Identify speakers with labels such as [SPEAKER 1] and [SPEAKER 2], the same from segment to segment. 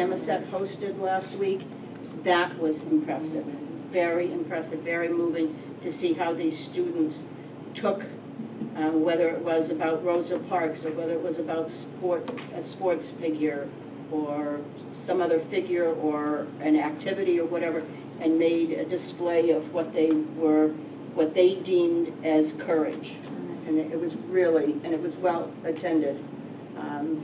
[SPEAKER 1] Samoset hosted last week. That was impressive, very impressive, very moving to see how these students took, uh, whether it was about Rosa Parks or whether it was about sports, a sports figure or some other figure or an activity or whatever, and made a display of what they were, what they deemed as courage. And it was really, and it was well attended. Um,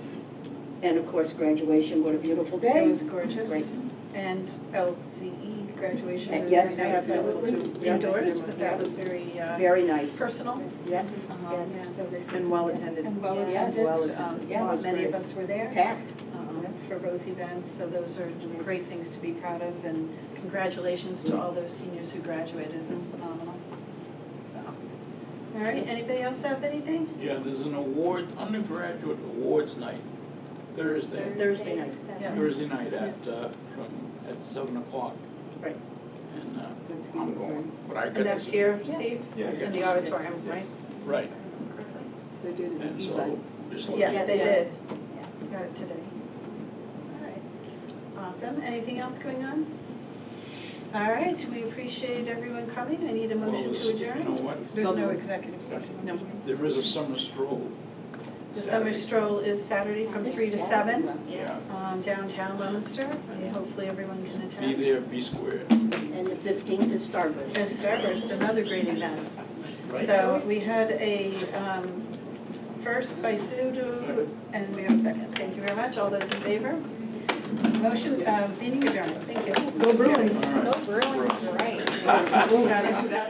[SPEAKER 1] And of course, graduation, what a beautiful day.
[SPEAKER 2] It was gorgeous.
[SPEAKER 1] Great.
[SPEAKER 2] And LCE graduation
[SPEAKER 1] Uh,
[SPEAKER 2] was
[SPEAKER 1] yes,
[SPEAKER 2] very nice. That was
[SPEAKER 1] absolutely. Yeah.
[SPEAKER 2] indoors, but that was very uh,
[SPEAKER 1] Very nice.
[SPEAKER 2] personal.
[SPEAKER 1] Yeah.
[SPEAKER 2] Um,
[SPEAKER 3] Yes.
[SPEAKER 2] so they said
[SPEAKER 3] And
[SPEAKER 2] some-
[SPEAKER 3] well attended.
[SPEAKER 2] And well
[SPEAKER 1] Yes.
[SPEAKER 2] attended.
[SPEAKER 3] Well
[SPEAKER 2] Um,
[SPEAKER 3] attended.
[SPEAKER 1] Yeah, it was
[SPEAKER 2] Many
[SPEAKER 1] great.
[SPEAKER 2] of us were there
[SPEAKER 1] Packed.
[SPEAKER 2] um,
[SPEAKER 1] Yeah.
[SPEAKER 2] for both events, so those are great things to be proud of. And congratulations to all those seniors who graduated. That's
[SPEAKER 1] Mm-hmm.
[SPEAKER 2] phenomenal. So, all right, anybody else have anything?
[SPEAKER 4] Yeah, there's an award, undergraduate awards night Thursday,
[SPEAKER 1] Thursday night.
[SPEAKER 2] Yeah.
[SPEAKER 4] Thursday night at, uh, from, at seven o'clock.
[SPEAKER 1] Right.
[SPEAKER 4] And, uh, I'm going, but I got
[SPEAKER 2] And that's
[SPEAKER 4] this-
[SPEAKER 2] here,
[SPEAKER 3] Yeah.
[SPEAKER 2] Steve?
[SPEAKER 4] Yeah.
[SPEAKER 2] In the auditorium, right?
[SPEAKER 4] Right,
[SPEAKER 3] They did an
[SPEAKER 4] and
[SPEAKER 3] e-bike.
[SPEAKER 4] so, just looking.
[SPEAKER 2] Yes, they
[SPEAKER 3] Yeah.
[SPEAKER 2] did. Got it today. All right. Awesome. Anything else going on? All right, we appreciate everyone coming. I need a
[SPEAKER 4] Well,
[SPEAKER 2] motion to
[SPEAKER 4] there's- You know
[SPEAKER 2] adjourn.
[SPEAKER 4] what,
[SPEAKER 2] There's no
[SPEAKER 3] Summer.
[SPEAKER 2] executive session. No.
[SPEAKER 4] there is a summer stroll.
[SPEAKER 2] The summer
[SPEAKER 4] Saturday.
[SPEAKER 2] stroll is Saturday from three to seven,
[SPEAKER 4] Yeah,
[SPEAKER 2] um, downtown Leominster. And Hopefully everyone can
[SPEAKER 4] be
[SPEAKER 2] attend.
[SPEAKER 4] there, be square.
[SPEAKER 1] And the 15th is Starburst.
[SPEAKER 2] And Starburst, another great event.
[SPEAKER 4] Right.
[SPEAKER 2] So we had a um, first by Sue, to- and we have a second. Thank you very much. All those in favor? Motion, uh, meeting adjourned. Thank you.
[SPEAKER 4] All right.
[SPEAKER 3] Bruins, right.
[SPEAKER 2] Got it.